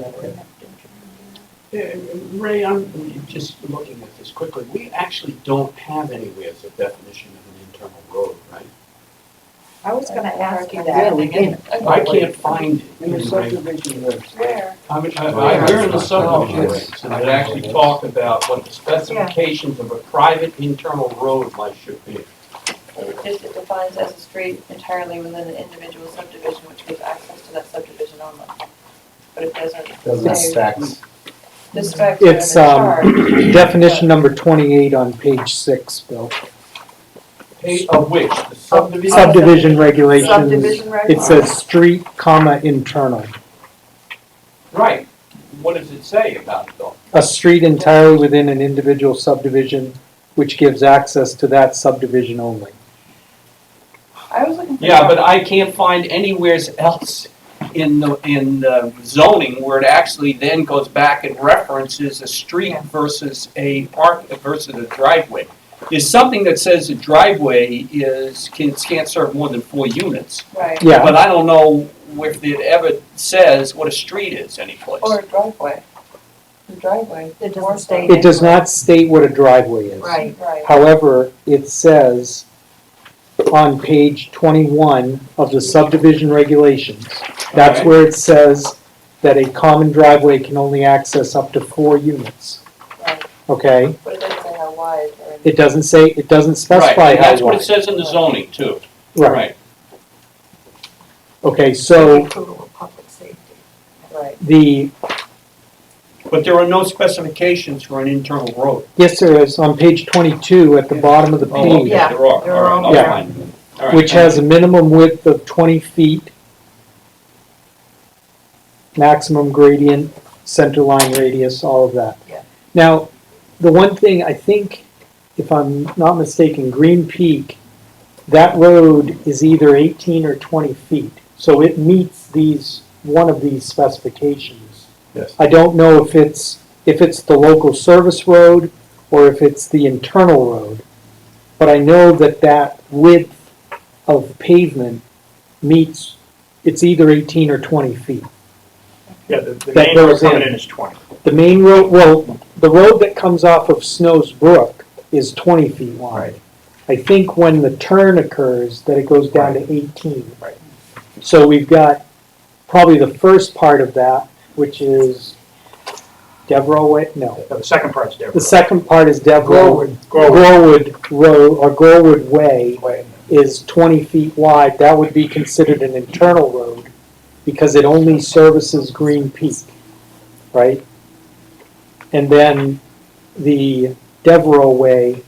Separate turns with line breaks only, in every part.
Ray.
Yeah, Uh, Ray, I'm just looking at this quickly. We actually don't have anywhere as a definition of an internal road, right?
I was gonna ask you
Yeah,
that.
we can.
I can't find it.
In the
in Ray.
subdivision regs.
Where?
I mean, I- I- we're in the subdivision regs, and it actually talked about what the specifications of a private internal road might should be.
It just it defines as a street entirely within an individual subdivision which gives access to that subdivision only. But it doesn't.
Doesn't
say
stacks.
The specs are in
It's, um,
the chart.
Definition number twenty-eight on page six, Bill.
Page Of which, the subdivision.
Subdivision regulations,
Subdivision
it
regs.
says street, comma, internal.
Right. What does it say about it though?
A street entirely within an individual subdivision which gives access to that subdivision only.
I was looking for.
Yeah, but I can't find anywheres else in the, in the zoning where it actually then goes back and references a street versus a park, versus a driveway. There's something that says a driveway is, can, can't serve more than four units.
Right,
Yeah,
But I don't know if it ever says what a street is anyplace.
or a driveway. The driveway.
It doesn't
Or
state
it does not state what a driveway is.
Right.
Right.
However, it says on page twenty-one of the subdivision regulations, that's
Okay.
where it says that a common driveway can only access up to four units,
Right,
okay?
but it doesn't say how wide or. anything.
It doesn't say, it doesn't
Right,
specify
and
how
that's what it
wide.
says in the zoning too.
Okay, so
Approval of public safety.
Right,
the,
But there are no specifications for an internal road.
yes, there is, on page twenty-two at the bottom of the
Oh, okay,
page,
Yeah,
there are, all
there are
right, I'll
all
find them. All right,
which has a minimum width of twenty feet, maximum gradient, center line radius, all of that.
Yeah.
Now, the one thing, I think, if I'm not mistaken, Green Peak, that road is either eighteen or twenty feet, so it meets these, one of these specifications.
Yes.
I don't know if it's, if it's the local service road or if it's the internal road, but I know that that width of pavement meets, it's either eighteen or twenty feet.
Yeah, the, the
That
main road
goes in.
coming in is twenty.
The main road, well, the road that comes off of Snow's Brook is twenty feet wide. I think when the turn occurs, that it goes down to eighteen.
Right.
So we've got probably the first part of that, which is Devereaux Way, no.
Now, the second part's Deborah.
The second part is Devereaux,
Grove.
Growood Road, or Growood Way is twenty feet wide. That would be considered an internal road because it only services Green Peak, right? And then the Devereaux Way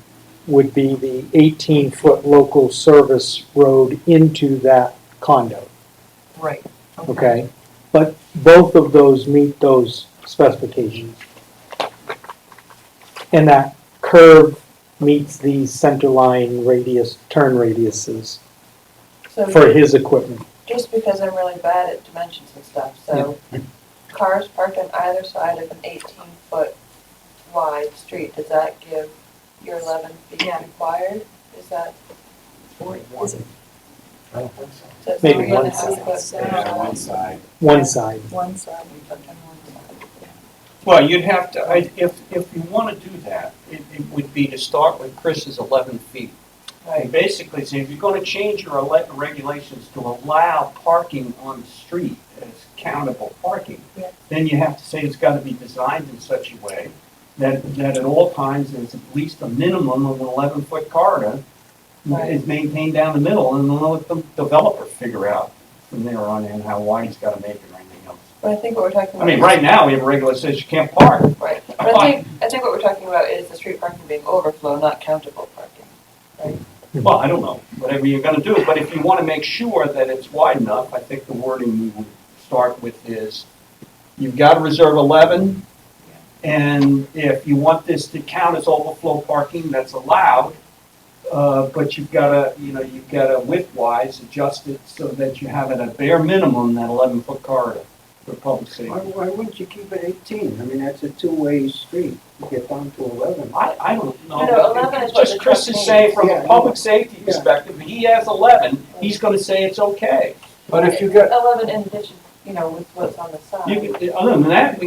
would be the eighteen-foot local service road into that condo,
Right.
okay? But both of those meet those specifications. And that curve meets the center line radius, turn radiuses
so.
for his equipment.
just because I'm really bad at dimensions and stuff, so cars parked on either side of an eighteen foot wide street, does that give your eleven feet
Yeah.
required? Is that,
Is it
I don't think so.
does
Maybe
three and a
one
half foot
side.
There's
down?
one side.
one side.
one side?
Well, you'd have to, I, if, if you want to do that, it, it would be to start with Chris's eleven feet. And
Right,
basically say, if you're going to change your ele- regulations to allow parking on the street as countable parking,
Yeah.
then you have to say it's got to be designed in such a way that, that at all times, there's at least a minimum of an eleven foot corridor
Right.
is maintained down the middle, and then let the developer figure out from there on in how wide he's got to make it or anything else.
but I think what we're talking
I
about.
mean, right now, we have a regulation that you can't park.
Right, but I think, I think what we're talking about is the street parking being overflow, not countable parking.
Well, I don't know, whatever you're gonna do, but if you wanna make sure that it's wide enough, I think the wording we would start with is, you've gotta reserve eleven, and if you want this to count as overflow parking, that's allowed, uh, but you've gotta, you know, you've gotta width-wise adjust it so that you have at a bare minimum that eleven-foot corridor for public
Why,
safety.
why wouldn't you keep it eighteen? I mean, that's a two-way street, you get down to eleven.
I, I don't know.
No, no, 11 is what
Just
the
Chris
truck
is saying from
means.
a
Yeah.
public safety
Yeah.
perspective, he has eleven, he's gonna say it's okay.
But if you got,
Eleven in addition, you know, with what's on the side.
You could- Other than that,